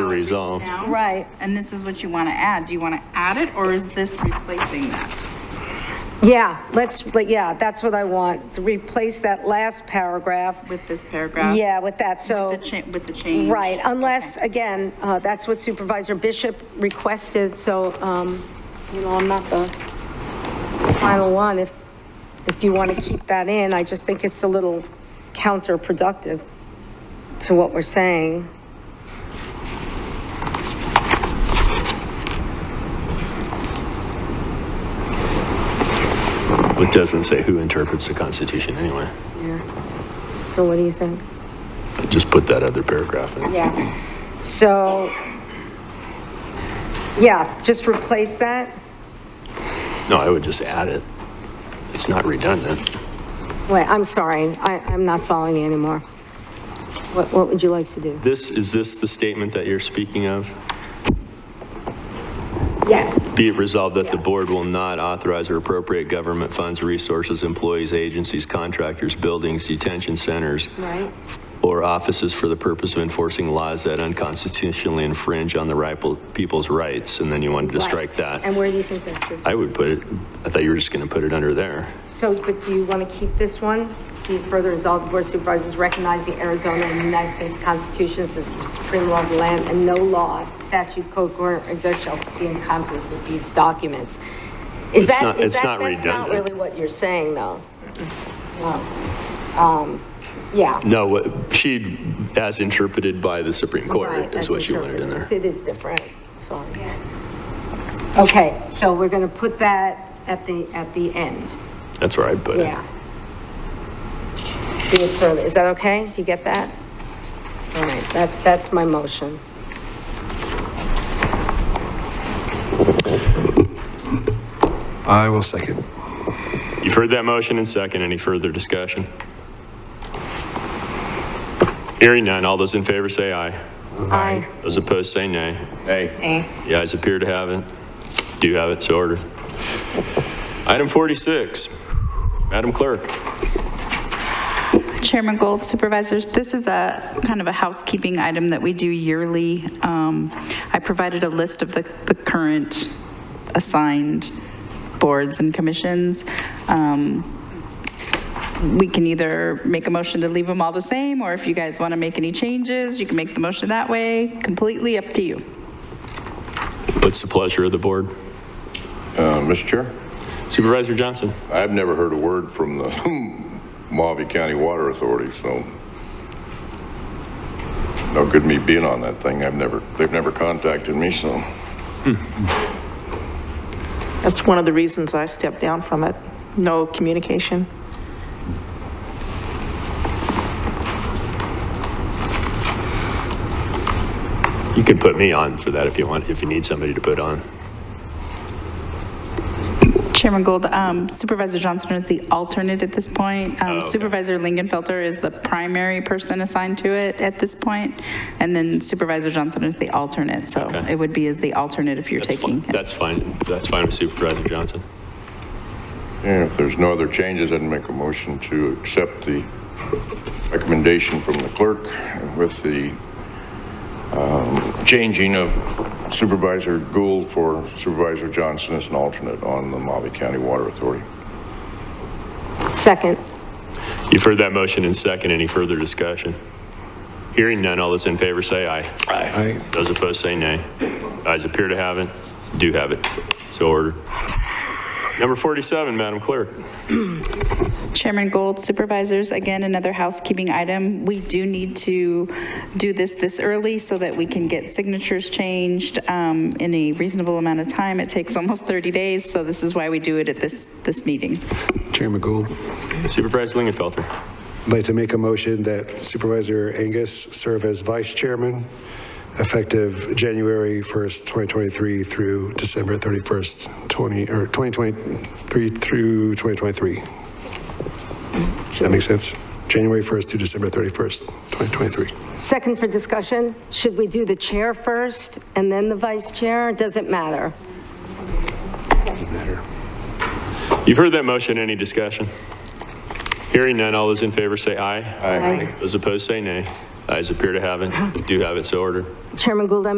order resolved. now. Right. And this is what you want to add. Do you want to add it or is this replacing that? Yeah, let's, but yeah, that's what I want, to replace that last paragraph. With this paragraph? Yeah, with that, so. The cha, with the change? Right, unless, again, uh, that's what Supervisor Bishop requested, so, um, you know, I'm not the final one. If, if you want to keep that in, I just think it's a little counterproductive to what we're saying. It doesn't say who interprets the Constitution anyway. So what do you think? I Just put that other paragraph in. Yeah. So, yeah, just replace that? No, I would just add it. It's not redundant. Wait, I'm sorry, I, I'm not following you anymore. What, what would you like to do? This, is this the statement that you're speaking of? Yes. Be it resolved that the board will not authorize or appropriate government funds, resources, employees, agencies, contractors, buildings, detention centers, Right? or offices for the purpose of enforcing laws that unconstitutionally infringe on the right people's rights, and then you wanted to Right. strike And that. where do you think that should? I would put it, I thought you were just going to put it under there. So, but do you want to keep this one? Be it further resolved, the Board of Supervisors recognize the Arizona and United States Constitutions as the supreme law of the land, and no law, statute, code, or exertion shall be in conflict with these documents. Is It's that, not- is it's that, not that's not redundant. really what you're saying, though? No. Um, Yeah. No, what- she, as interpreted by the Supreme Right, Court, is that's what she wanted in there. interpreted. It is different, sorry. Okay, so we're going to put that at the, at the end. That's uh, where I'd put it. Yeah. Be it further, is that okay? Do you get that? All right, that, that's my motion. I will second. You've heard that motion and second. Any further discussion? Hearing none. All those in favor say aye. Aye. Those opposed say nay. Nay. The ayes appear to have it. Do have it, so ordered. Item 46. Madam Clerk. Chairman Gold, supervisors, this is a kind of a housekeeping item that we do yearly. Um, I provided a list of the, the current assigned boards and commissions. Um, We can either make a motion to leave them all the same, or if you guys want to make any changes, you can make the motion that way, completely up to you. What's the pleasure of the board? Uh, Mr. Chair, Supervisor Johnson. I've never heard a word from the Mojave County Water Authority, so no good me being on that thing. I've never, they've never contacted me, so. That's one of the reasons I stepped down from it. No communication. You can put me on for that if you want, if you need somebody to put on. Chairman Gold, um, Supervisor Johnson is the alternate at this point. Um, Oh, okay. Supervisor Lingenfelter is the primary person assigned to it at this point, and then Supervisor Johnson is the alternate, so Okay. it would be as the alternate if you're That's taking. fine. That's fine. That's fine with Supervisor Johnson. Yeah, if there's no other changes, I'd make a motion to accept the recommendation from the clerk with the um, changing of Supervisor Gould for Supervisor Johnson as an alternate on the Mojave County Water Authority. Second. You've heard that motion and second. Any further discussion? Hearing none, all those in favor say aye. Aye. Those opposed say nay. Ayes appear to have it, do have it. So ordered. Number 47, Madam Clerk. Chairman Gold, supervisors, again, another housekeeping item. We do need to do this this early so that we can get signatures changed um, in a reasonable amount of time. It takes almost 30 days, so this is why we do it at this, this meeting. Chairman Gould, Supervisor Lingenfelter. I'd like to make a motion that Supervisor Angus serve as vice chairman effective January 1st, 2023 through December 31st, 20, or 2023 through 2023. Does that make sense? January 1st to December 31st, 2023. Second for discussion, should we do the chair first and then the vice chair? Does it matter? You've heard that motion, any discussion? Hearing none, all those in favor say aye. Aye. Those opposed say nay. Ayes appear to have it. Do have it, so ordered. Chairman Gould, I